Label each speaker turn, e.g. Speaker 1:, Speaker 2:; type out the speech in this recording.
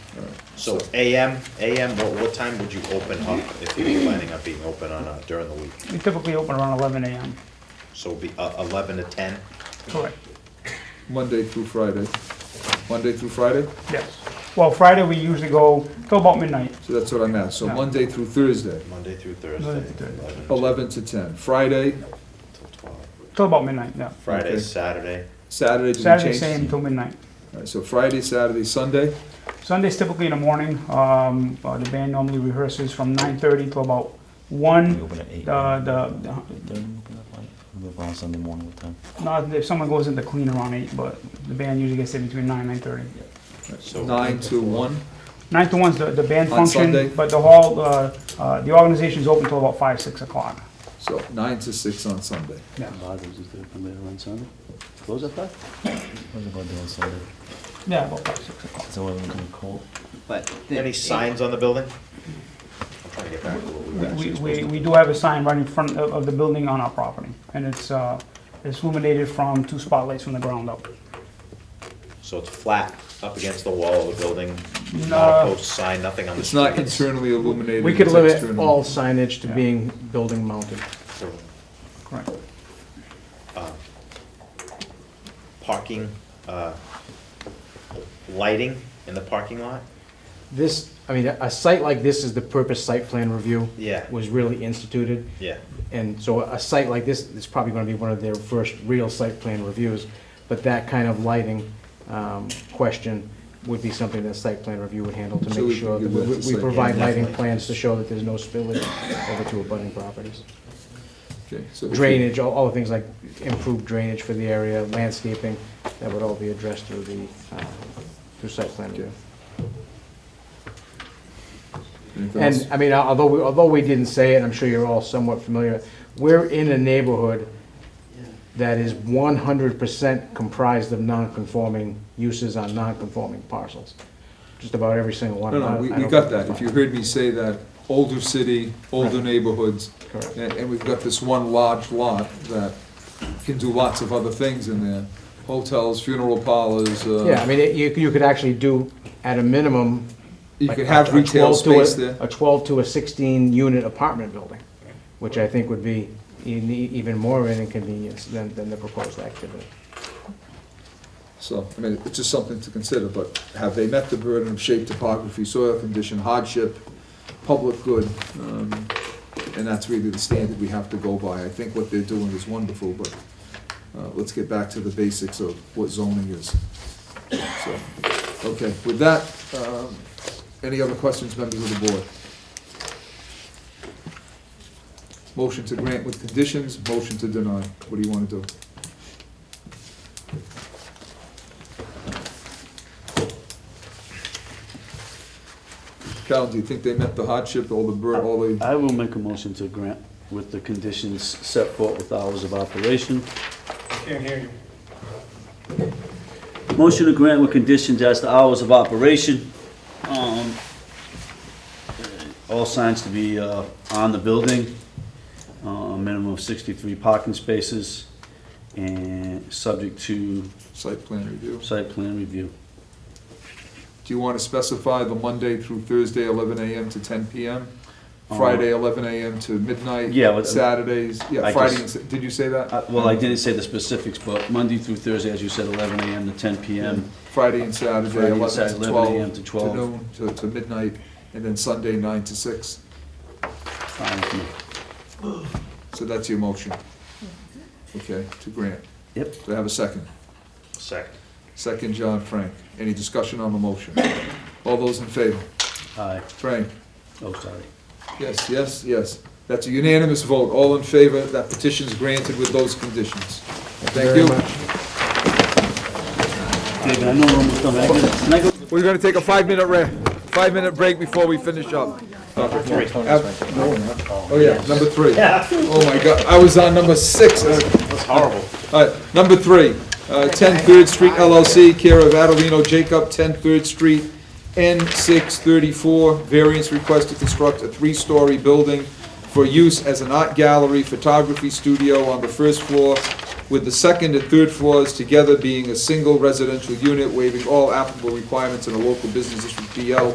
Speaker 1: So AM, AM, what, what time would you open up if you were planning on being open on, uh, during the week?
Speaker 2: We typically open around eleven AM,
Speaker 1: So it'd be uh, eleven to ten?
Speaker 2: correct,
Speaker 3: Monday through Friday. Monday through Friday?
Speaker 2: yes. Well, Friday, we usually go till about midnight,
Speaker 3: So that's what I'm at. So
Speaker 2: Yeah.
Speaker 3: Monday through Thursday,
Speaker 1: Monday through Thursday,
Speaker 2: Monday through Thursday.
Speaker 1: eleven to
Speaker 3: eleven to ten. Friday,
Speaker 1: till twelve.
Speaker 2: till about midnight, yeah.
Speaker 1: Friday,
Speaker 3: Okay.
Speaker 1: Saturday,
Speaker 3: Saturday, did we
Speaker 2: Saturday,
Speaker 3: change?
Speaker 2: same till midnight.
Speaker 3: All right, So Friday, Saturday, Sunday,
Speaker 2: Sunday's typically in the morning, um, uh, the band normally rehearses from nine thirty till about one.
Speaker 4: open at eight.
Speaker 2: Uh, the,
Speaker 4: on Sunday morning, what time?
Speaker 2: not, if someone goes into clean around eight, but the band usually gets there between nine, nine thirty.
Speaker 1: so.
Speaker 3: nine to one.
Speaker 2: Nine to one's the, the band
Speaker 3: On Sunday?
Speaker 2: function, but the hall, uh, uh, the organization's open till about five, six o'clock.
Speaker 3: So nine to six on Sunday.
Speaker 5: Bothers is gonna come later on Sunday. Close at five?
Speaker 4: What's it gonna do on Sunday?
Speaker 2: Yeah, about five, six o'clock.
Speaker 4: Is the weather gonna be cold?
Speaker 5: But.
Speaker 1: Any signs on the building? I'm trying to get back to what we were
Speaker 2: We,
Speaker 1: actually supposed
Speaker 2: we,
Speaker 1: to.
Speaker 2: we do have a sign right in front of, of the building on our property, and it's, uh, it's illuminated from two spotlights from the ground up.
Speaker 1: So it's flat up against the wall of the building, not a
Speaker 2: No.
Speaker 1: post sign, nothing on the
Speaker 3: It's
Speaker 1: street.
Speaker 3: not internally illuminated.
Speaker 6: We could
Speaker 3: it's
Speaker 6: limit
Speaker 3: external.
Speaker 6: all signage to
Speaker 2: Yeah.
Speaker 6: being building mounted.
Speaker 1: So,
Speaker 2: Correct.
Speaker 1: um, Parking, uh, lighting in the parking lot?
Speaker 6: This, I mean, a site like this is the purpose site plan review
Speaker 1: Yeah,
Speaker 6: was really instituted.
Speaker 1: yeah.
Speaker 6: And so a site like this is probably gonna be one of their first real site plan reviews. But that kind of lighting um, question would be something that site plan review would handle
Speaker 3: So
Speaker 6: to
Speaker 3: we
Speaker 6: make
Speaker 3: can
Speaker 6: sure that
Speaker 3: give
Speaker 6: we
Speaker 3: that to
Speaker 6: we
Speaker 3: site
Speaker 6: provide
Speaker 1: plan.
Speaker 6: lighting plans to show that there's no spillage over to abutting properties.
Speaker 3: Okay, so if you-
Speaker 6: Drainage, all, all the things like improved drainage for the area, landscaping, that would all be addressed through the, uh, through site plan review.
Speaker 3: anything else?
Speaker 6: And, I mean, although, we- although we didn't say it, I'm sure you're all somewhat familiar, we're in a neighborhood that is one hundred percent comprised of non-conforming uses on non-conforming parcels. Just about every single one.
Speaker 3: No,
Speaker 6: I-
Speaker 3: no, we,
Speaker 6: I
Speaker 3: we
Speaker 6: don't
Speaker 3: got
Speaker 6: think
Speaker 3: that. If you
Speaker 6: that's
Speaker 3: heard me say that, older city, older
Speaker 6: Right.
Speaker 3: neighborhoods,
Speaker 6: Correct.
Speaker 3: and, and we've got this one large lot that can do lots of other things in there. Hotels, funeral parlors, uh.
Speaker 6: Yeah, I mean, it- you, you could actually do, at a minimum,
Speaker 3: You
Speaker 6: like
Speaker 3: could
Speaker 6: a-
Speaker 3: have
Speaker 6: a
Speaker 3: retail
Speaker 6: 12 to a-
Speaker 3: space there.
Speaker 6: A 12 to a 16-unit apartment building, which I think would be in- even more of an inconvenience than, than the proposed activity.
Speaker 3: So, I mean, it's just something to consider, but have they met the burden of shape, topography, soil condition, hardship, public good? um, And that's really the standard we have to go by. I think what they're doing is wonderful, but uh, let's get back to the basics of what zoning is. So, okay, with that, um, any other questions, members of the board? Motion to grant with conditions, motion to deny. What do you want to do? Cal, do you think they met the hardship, all the bur, all the?
Speaker 5: I will make a motion to grant with the conditions set forth with hours of operation.
Speaker 2: Can't hear you.
Speaker 5: Motion to grant with conditions as to hours of operation. Um, All signs to be uh, on the building, uh, a minimum of 63 parking spaces, and subject to
Speaker 3: Site plan review.
Speaker 5: site plan review.
Speaker 3: Do you want to specify the Monday through Thursday, eleven AM to ten PM? Friday, eleven AM to midnight?
Speaker 5: Uh, Yeah, but-
Speaker 3: Saturdays, yeah,
Speaker 5: I
Speaker 3: Friday, and
Speaker 5: just-
Speaker 3: Sa- did you say that?
Speaker 5: Uh, Well, I didn't say the specifics, but Monday through Thursday, as you said, 11 AM to 10 PM.
Speaker 3: Friday and Saturday,
Speaker 5: Friday and
Speaker 3: eleven
Speaker 5: Saturday,
Speaker 3: to
Speaker 5: 11
Speaker 3: twelve.
Speaker 5: a.m. to 12.
Speaker 3: noon, to, to midnight, and then Sunday, nine to six.
Speaker 5: Fine with me.
Speaker 3: So that's your motion. Okay, to grant.
Speaker 5: Yep.
Speaker 3: Do I have a second?
Speaker 1: Second.
Speaker 3: Second, John Frank. Any discussion on the motion? All those in favor?
Speaker 5: Aye.
Speaker 3: Frank?
Speaker 5: Oh, sorry.
Speaker 3: Yes, yes, yes. That's a unanimous vote. All in favor, that petition is granted with those conditions. Thank
Speaker 6: Very
Speaker 3: you.
Speaker 6: much.
Speaker 5: David, I know we're almost done, but I can- can I go
Speaker 3: We're gonna take a five-minute re, five-minute break before we finish up. Number three. Oh, yeah, number three. Oh, my God, I was on number six. That's
Speaker 1: horrible.
Speaker 3: All right, number three, uh, 10 Third Street LLC, care of Adelino Jacob, 10 Third Street, N634, variance request to construct a three-story building for use as an art gallery, photography studio on the first floor, with the second and third floors together being a single residential unit, waiving all applicable requirements in a local business district BL